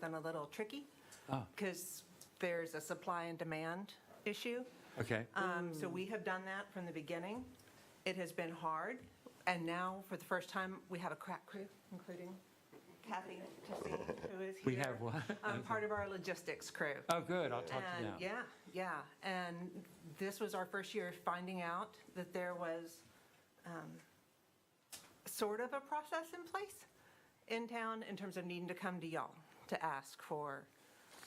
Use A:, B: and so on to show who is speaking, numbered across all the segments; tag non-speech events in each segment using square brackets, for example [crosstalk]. A: been a little tricky
B: Ah.
A: because there's a supply and demand issue.
B: Okay.
A: Um, So we have done that from the beginning. It has been hard, and now, for the first time, we have a crack crew, including Kathy,
B: [laughs]
A: Justine, who is here.
B: We have what?
A: Um, Part of our logistics crew.
B: [laughs] Oh, good, I'll talk to
A: And,
B: you now.
A: Uh, yeah, yeah, and this was our first year finding out that there was um, sort of a process in place in town in terms of needing to come to y'all to ask for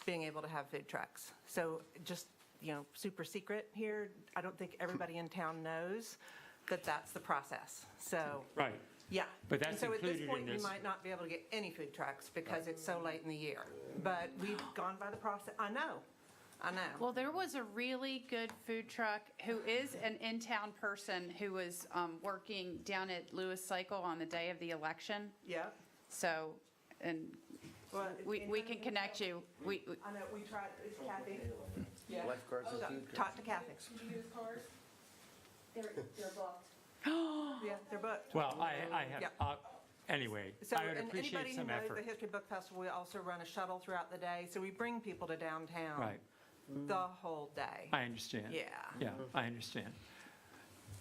A: being able to have food trucks. So just, you know, super secret here, I don't think everybody in town knows that that's the process, so.
B: Right.
A: Yeah.
B: But that's
A: And so at this
B: included in
A: point, we
B: this.
A: might not be able to get any food trucks because it's so late in the year. But
C: [gasps]
A: we've gone by the process, I know, I know.
C: Well, there was a really good food truck who is an in-town person who was um, working down at Lewis Cycle on the day of the election.
A: Yeah.
C: So, and we, we can connect you. We, we-
A: I know, we tried, it's Kathy. Yeah.
D: Lifeguards and
A: So,
D: food trucks.
A: Talk to Kathy.
E: They're, they're booked.
A: Yeah, they're booked.
B: Well, I, I have,
A: Yeah.
B: uh, anyway,
A: So,
B: I would
A: and
B: appreciate some
A: Anybody who knows the
B: effort.
A: History Book Festival, we also run a shuttle throughout the day, so we bring people to downtown.
B: Right.
A: The whole day.
B: I understand.
A: Yeah.
B: Yeah, I understand.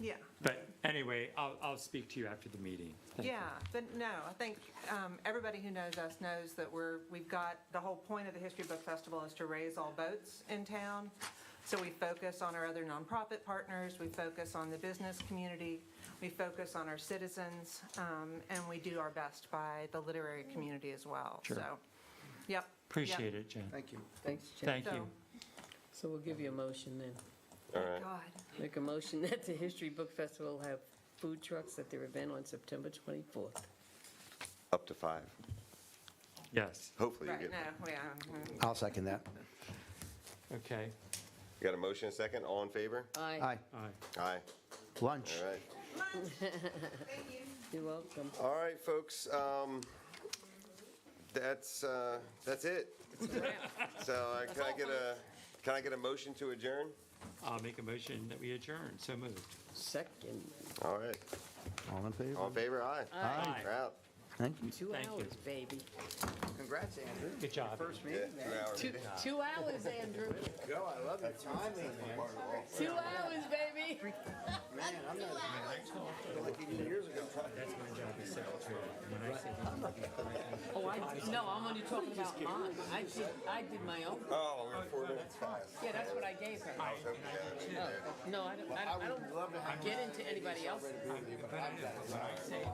A: Yeah.
B: But anyway, I'll, I'll speak to you after the meeting. Thank you.
A: Yeah, but no, I think um, everybody who knows us knows that we're, we've got, the whole point of the History Book Festival is to raise all boats in town. So we focus on our other nonprofit partners, we focus on the business community, we focus on our citizens, um, and we do our best by the literary community as well.
B: Sure.
A: So, yep.
B: Appreciate it, Jen.
D: Thank you.
F: Thanks, Jen.
B: Thank you.
F: So we'll give you a motion then.
A: All right. God.
F: Make a motion [laughs] that the History Book Festival have food trucks at their event on September 24th.
G: Up to five.
B: Yes,
G: Hopefully you
A: Right,
G: get,
A: no, yeah. mm-hmm.
D: I'll second that.
B: okay.
G: you got a motion and a second, all in favor?
F: Aye.
D: Aye.
B: All right.
G: Aye,
D: Lunch.
G: all right.
A: Thank you.
F: You're welcome.
G: All right, folks, um, that's, uh, that's it. So I- can I get a, can I get a motion to adjourn?
B: I'll make a motion that we adjourn, so moved.
F: Second,
G: All right,
D: All in favor?
G: all in favor, aye.
B: Aye.
G: We're out.
D: Thank you.
F: two
B: Thank you.
F: hours, baby.
D: Congrats, Andrew.
B: Good job.
G: Yeah, two hours.
F: Two two hours, Andrew.
D: Yo, I love your timing, man.
F: Two hours, [laughs] baby.
D: Man, I'm not. Like eighty years ago.
F: Oh, I, no, I'm only talking about mine. I did, I did my own.
G: Oh, we're four minutes past.
F: Yeah, that's what I gave her. Oh, No, I don't, I don't- I don't get into anybody else's.